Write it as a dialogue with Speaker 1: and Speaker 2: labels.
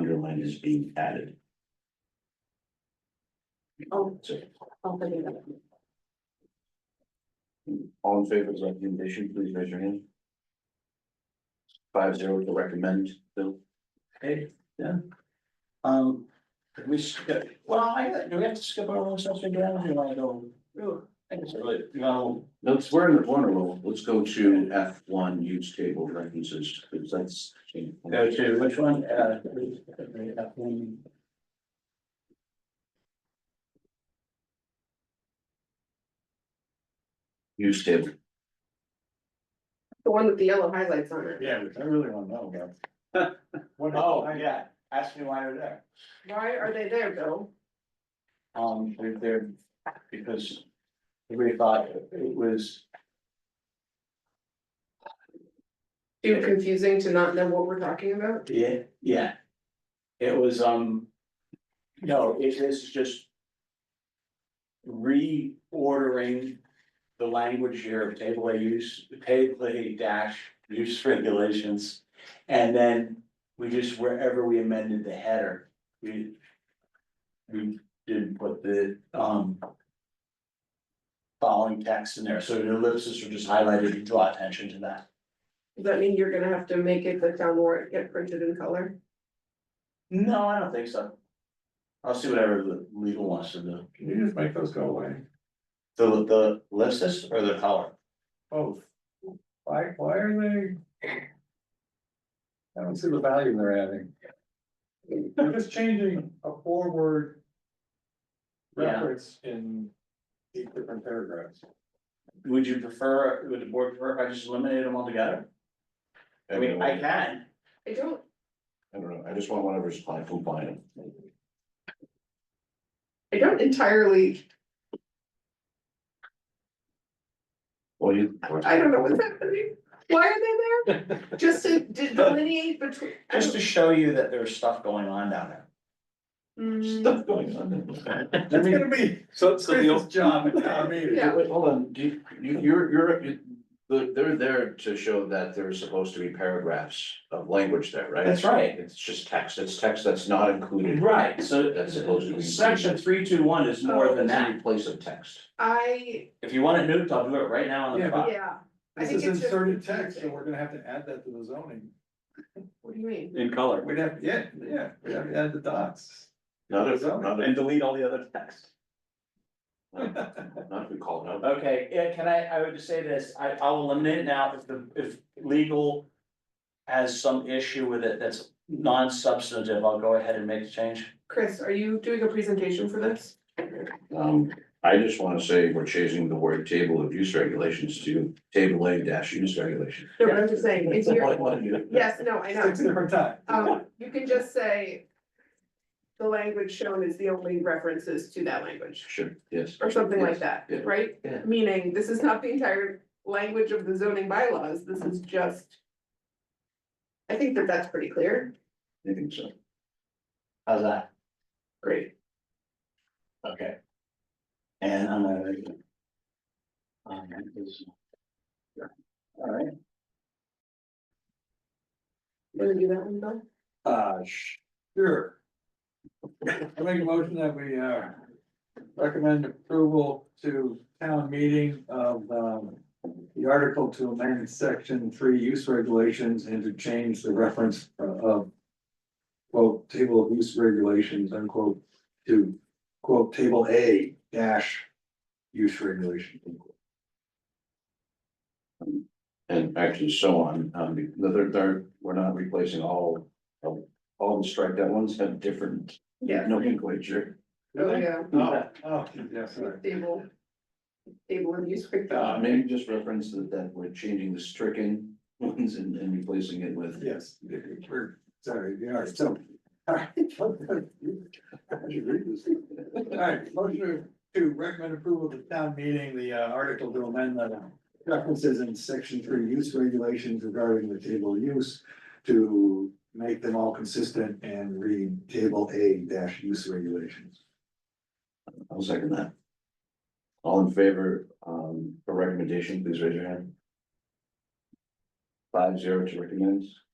Speaker 1: item is being added.
Speaker 2: Oh, I'll put it up.
Speaker 1: All in favor of the recommendation, please raise your hand. Five zero to recommend, Bill. Okay, yeah. Um, can we skip, well, I, do we have to skip our own stuff again, or do you wanna go? I guess, really, No, let's, we're in the corner rule, let's go to F one, use table references, because that's. Go to which one, uh? F one. Use table.
Speaker 2: The one with the yellow highlights on it.
Speaker 1: Yeah, which I really wanna know about. What, oh, yeah, ask me why they're there.
Speaker 2: Why are they there, Bill?
Speaker 1: Um, they're there because everybody thought it was,
Speaker 2: Too confusing to not know what we're talking about?
Speaker 1: yeah, yeah. It was, um, no, it is just reordering the language here of table A use, table A dash use regulations. And then we just, wherever we amended the header, we we did put the, um, following text in there, so the ellipses are just highlighted to draw attention to that.
Speaker 2: Does that mean you're gonna have to make it the town warrant get printed in color?
Speaker 1: No, I don't think so. I'll see whatever the legal wants to do.
Speaker 3: Can you just make those go away?
Speaker 1: The, the ellipsis or the color?
Speaker 3: Both. Why, why are they? I don't see the value they're adding. They're just changing a four word.
Speaker 1: Yeah.
Speaker 3: Reference in eight different paragraphs.
Speaker 1: Would you prefer, would the board prefer if I just eliminated them altogether? I mean, I can.
Speaker 2: I don't,
Speaker 4: I don't know, I just want whatever's applied from Bynum.
Speaker 2: I don't entirely,
Speaker 4: Well, you.
Speaker 2: I don't know what's happening. Why are they there? Just to de- delineate between.
Speaker 1: Just to show you that there's stuff going on down there.
Speaker 2: Hmm,
Speaker 4: Stuff going on.
Speaker 3: I mean,
Speaker 1: be.
Speaker 3: so, so the
Speaker 1: Chris's
Speaker 3: old job at town meeting.
Speaker 2: Yeah.
Speaker 4: Wait, hold on, do you, you- you're, you're, you- the- they're there to show that there's supposed to be paragraphs of language there, right?
Speaker 1: That's right.
Speaker 4: It's just text, it's text that's not included.
Speaker 1: Right, so
Speaker 4: That's supposed to be-
Speaker 1: section three two one is more than
Speaker 4: It's
Speaker 1: that.
Speaker 4: any place of text.
Speaker 2: I,
Speaker 1: If you want it nuked, I'll do it right now on the
Speaker 3: Yeah, but-
Speaker 1: spot.
Speaker 2: yeah, I
Speaker 3: This
Speaker 2: think
Speaker 3: is
Speaker 2: it's just
Speaker 3: inserted text,
Speaker 2: confusing.
Speaker 3: and we're gonna have to add that to the zoning.
Speaker 2: what do you mean?
Speaker 1: In color.
Speaker 3: We'd have, yeah, yeah, we'd have to add the dots.
Speaker 4: Not if, not if,
Speaker 1: delete all the other text.
Speaker 4: not if we call it out.
Speaker 1: Okay, yeah, can I, I would just say this, I, I'll eliminate it now if the, if legal. Has some issue with it that's non-substantive, I'll go ahead and make the change.
Speaker 2: Chris, are you doing a presentation for this?
Speaker 4: Um, I just wanna say we're changing the word table of use regulations to table A dash use regulation.
Speaker 2: No, but I'm just saying, it's your, yes, no, I know.
Speaker 3: Six different times.
Speaker 2: Um, you can just say. The language shown is the only references to that language,
Speaker 4: Sure, yes.
Speaker 2: or something like that,
Speaker 4: Yes, yeah,
Speaker 2: right?
Speaker 4: yeah.
Speaker 2: Meaning, this is not the entire language of the zoning bylaws, this is just. I think that that's pretty clear,
Speaker 4: I think so.
Speaker 1: How's that?
Speaker 2: great,
Speaker 1: Okay. And I'm gonna. make it. Um, that is- yeah. All right,
Speaker 2: you wanna do that one, Bill?
Speaker 3: Uh, sure. I make a motion that we, uh, recommend approval to town meeting of, um, the article to amend section three use regulations and to change the reference uh, of quote, table of use regulations unquote, to quote, table A dash use regulation. unquote.
Speaker 4: And actually so on, um, be- no, they're, they're, we're not replacing all, all all the striped out ones have different
Speaker 2: Yeah,
Speaker 4: nomenclature.
Speaker 2: oh, yeah,
Speaker 3: Oh, oh, yeah, sorry.
Speaker 2: table. Table and use.
Speaker 4: Uh, maybe just reference that, that we're changing the stricken ones and, and replacing it with.
Speaker 3: Yes, we're, sorry, we are so. Alright, motion to recommend approval of the town meeting, the uh, article to amend the references in section three use regulations regarding the table use. To make them all consistent and read table A dash use regulations.
Speaker 4: I'll second that. All in favor, um, for recommendation, please raise your hand. Five zero to recommend.